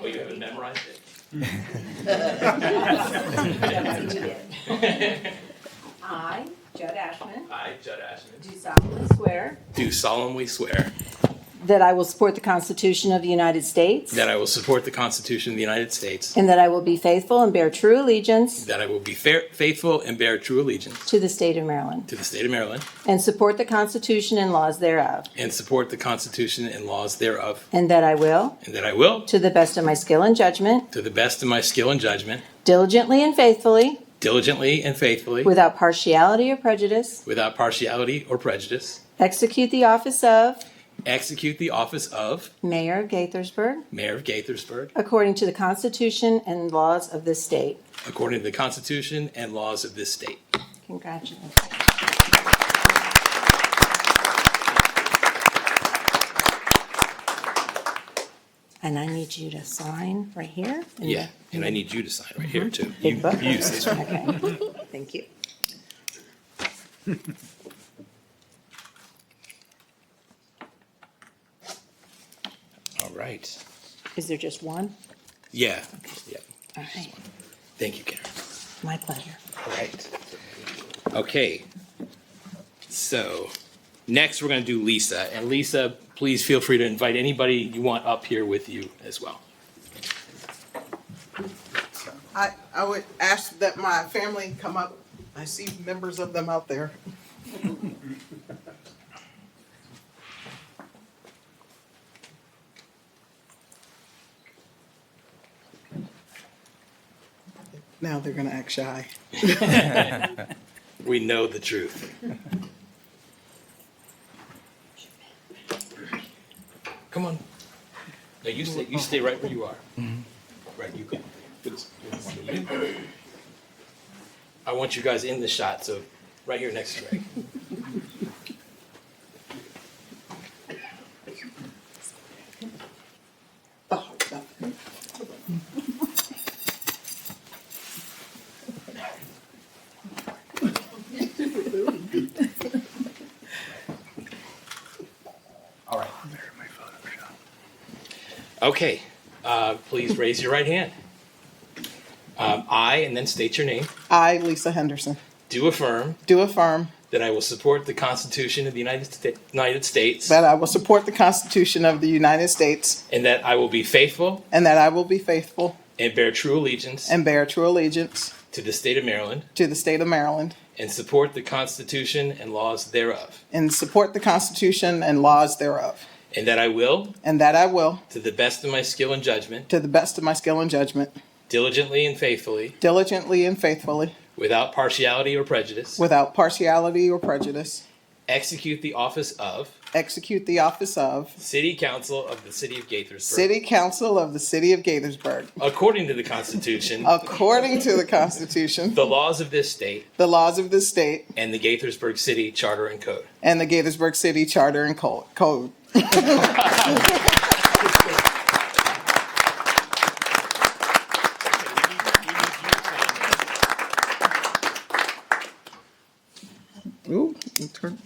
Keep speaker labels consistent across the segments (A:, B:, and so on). A: Oh, memorized it.
B: Yes, you did. I, Judd Ashman,
A: I, Judd Ashman.
B: do solemnly swear
A: Do solemnly swear
B: that I will support the Constitution of the United States
A: that I will support the Constitution of the United States,
B: and that I will be faithful and bear true allegiance
A: that I will be fair, faithful and bear true allegiance
B: to the state of Maryland
A: to the state of Maryland,
B: and support the Constitution and laws thereof,
A: and support the Constitution and laws thereof,
B: and that I will,
A: and that I will,
B: to the best of my skill and judgment,
A: to the best of my skill and judgment,
B: diligently and faithfully,
A: diligently and faithfully,
B: without partiality or prejudice,
A: without partiality or prejudice,
B: execute the office of
A: execute the office of
B: Mayor of Gaithersburg
A: Mayor of Gaithersburg
B: according to the Constitution and laws of this state.
A: according to the Constitution and laws of this state.
B: Congratulations. And I need you to sign right here. in the-
A: Yeah, and I need you to sign right here too.
B: Big book.
A: You use this one.
B: Okay, thank you.
A: All right.
B: Is there just one?
A: Yeah, yeah.
B: All right,
A: Thank you, Karen.
B: my pleasure.
A: All right. Okay. So next, we're going to do Lisa. And Lisa, please feel free to invite anybody you want up here with you as well.
C: I, I would ask that my family come up. I see members of them out there. Now they're gonna act shy.
A: We know the truth. Come on. No, you stay, you stay right where you are. Right, you can. I want you guys in the shot, so right here next to Greg.
C: Oh, no.
A: All right. Okay, uh, please raise your right hand. Um, I, and then state your name,
C: I, Lisa Henderson,
A: do affirm
C: do affirm
A: that I will support the Constitution of the United Sta- United States
C: that I will support the Constitution of the United States
A: and that I will be faithful
C: and that I will be faithful
A: and bear true allegiance
C: and bear true allegiance
A: to the state of Maryland
C: to the state of Maryland
A: and support the Constitution and laws thereof,
C: and support the Constitution and laws thereof.
A: and that I will,
C: And that I will,
A: to the best of my skill and judgment,
C: to the best of my skill and judgment,
A: diligently and faithfully,
C: diligently and faithfully,
A: without partiality or prejudice,
C: without partiality or prejudice,
A: execute the office of
C: execute the office of
A: City Council of the City of Gaithersburg.
C: City Council of the City of Gaithersburg
A: According to the Constitution,
C: according to the Constitution,
A: the laws of this state,
C: the laws of the state,
A: and the Gaithersburg City Charter and Code.
C: and the Gaithersburg City Charter and Co- Code. Ooh, turn-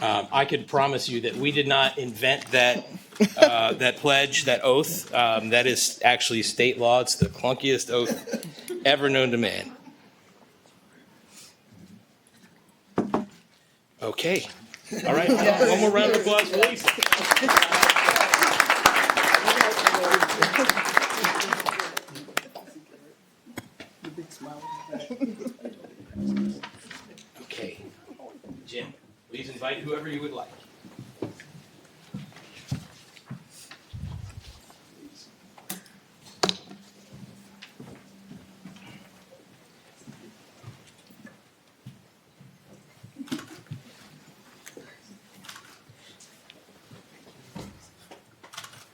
A: Um, I could promise you that we did not invent that, uh, that pledge, that oath. Um, That is actually state law. It's the clunkiest oath ever known to man. Okay. All right. One more round of applause, please.
C: The big smile.
A: Okay. Jim, please invite whoever you would like.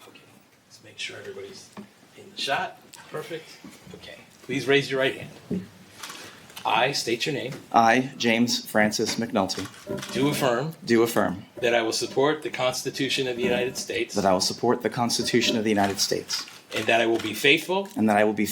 A: Okay, let's make sure everybody's in the shot. Perfect. Okay, please raise your right hand. I state your name.
D: I, James Francis McNulty,
A: Do affirm
D: do affirm
A: that I will support the Constitution of the United States
D: that I will support the Constitution of the United States
A: and that I will be faithful
D: and that I will be